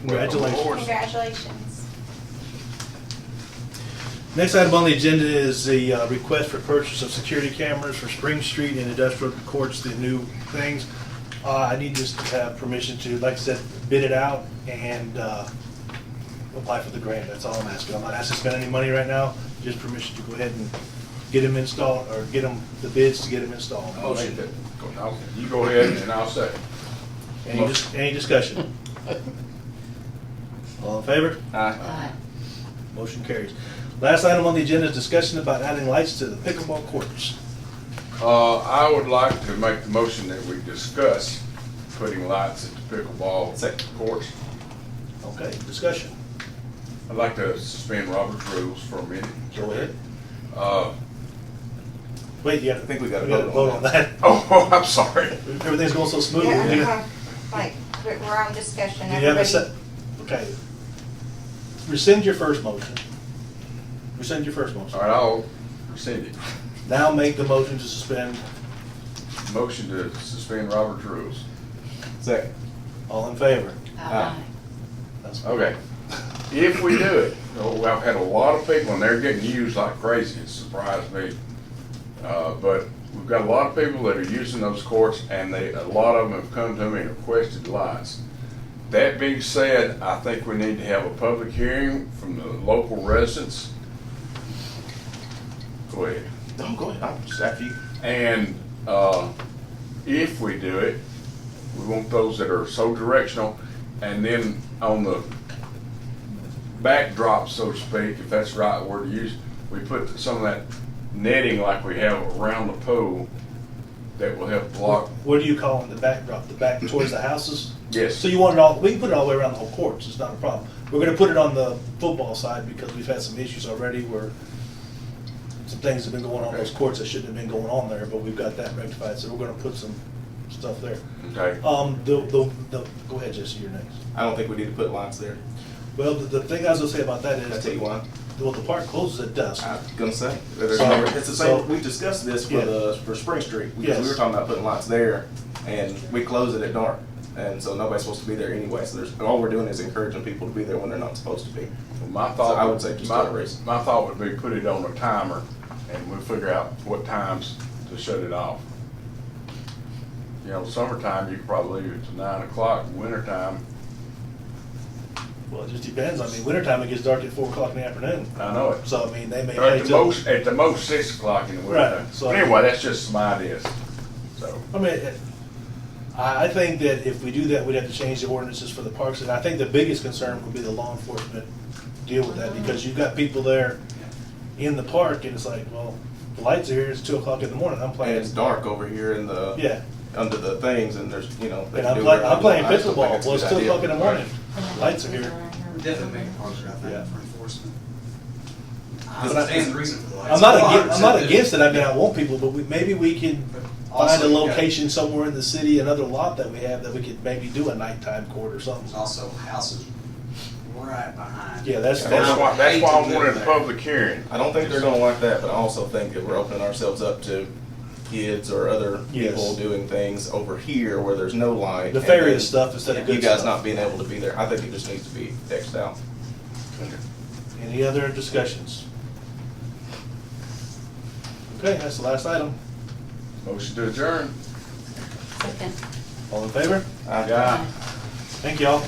Congratulations. Congratulations. Next item on the agenda is the uh, request for purchase of security cameras for Spring Street and Industrial Courts, the new things. Uh, I need just to have permission to, like I said, bid it out and uh, apply for the grant. That's all I'm asking. I'm not asking to spend any money right now, just permission to go ahead and get them installed, or get them, the bids to get them installed. I'll make that. I'll- You go ahead and I'll second. Any, dis- any discussion? All in favor? Aye. Motion carries. Last item on the agenda is discussion about adding lights to the pickleball courts. Uh, I would like to make the motion that we discuss putting lights at the pickleball courts. Okay, discussion. I'd like to suspend Robert's rules for a minute. Go ahead. Uh, Wait, yeah. I think we gotta vote on that. oh, I'm sorry. Everything's going so smoothly. Yeah, Do you uh-huh. Like, we're we're on discussion, have a everybody. se- Okay. Rescind your first motion. Rescind your first motion. All right, I'll rescind it. Now make the motion to suspend. Motion to suspend Robert's rules. Second. All in favor? Ah. Aye. That's- Okay. If we do it, oh, I've had a lot of people, and they're getting used like crazy, it surprised me. Uh, But we've got a lot of people that are using those courts, and they, a lot of them have come to me and requested lights. That being said, I think we need to have a public hearing from the local residents. Go ahead. oh, No, go ahead. I'm just after you. And uh, if we do it, we want those that are so directional, and then on the backdrop, so to speak, if that's the right word to use, we put some of that netting like we have around the pool that will help block. What do you call them, the backdrop, the back towards the houses? Yes. So you want it all, we can put it all the way around the whole courts, it's not a problem. We're gonna put it on the football side because we've had some issues already where some things have been going on in those courts that shouldn't have been going on there, but we've got that rectified, so we're gonna put some stuff there. Okay. Um, the, the, the, go ahead, Jesse, you're next. I don't think we need to put lines there. Well, the, the thing I was gonna say about that Can I Ah. is, tell you why? well, the park closes at dusk. I'm gonna say, that there's So- never- it's the so- same, we discussed this for Yeah. the, for Spring Street, because we Yes. were talking about putting lights there, and we close it at dark. And so nobody's supposed to be there anyway, so there's, and all we're doing is encouraging people to be there when they're not supposed to be. My So thought. I would say just my- do it race. My thought would be put it on a timer, and we'll figure out what times to shut it off. You know, summertime, you could probably leave it to nine o'clock, wintertime, Well, it just depends, I mean, wintertime it gets dark at four o'clock in the afternoon. I know it. So, I mean, they may. Or play At the till- most, at the most, six o'clock in the winter. Right, so- But anyway, that's just my ideas, so. I mean, it- I, I think that if we do that, we'd have to change the ordinances for the parks, and I think the biggest concern would be the law enforcement deal with that, because you've got people there in the park, and it's like, well, the lights are here, it's two o'clock in the morning, I'm And playing, it's dark over here in the. Yeah. Under the things, and there's, you know. they and can I'm do playing, whatever I'm they playing want. I just don't think pickleball, it's a well, it's good two idea. o'clock in the Right. morning, lights are here. Definitely make it harder, I Yeah. think, for enforcement. But I I- understand the reason for the lights. I'm not Well, against, I'm I not accept against it. it, I mean, I want people, but we, maybe we can find Also, a you got- location somewhere in the city, another lot that we have, that we could maybe do a nighttime court or something. There's also houses right behind. Yeah, that's- And That's why, that's why Hate I to live wanted a there. public hearing. I don't think they're gonna like that, but I also think that we're opening ourselves up to kids or other Yes. people doing things over here where there's no light. Nefarious and stuff instead then of good You stuff. guys not being able to be there. I think it just needs to be fixed out. Any other discussions? Okay, that's the last item. Motion to adjourn. Second. All in favor? I- Ah. Yeah. Thank y'all.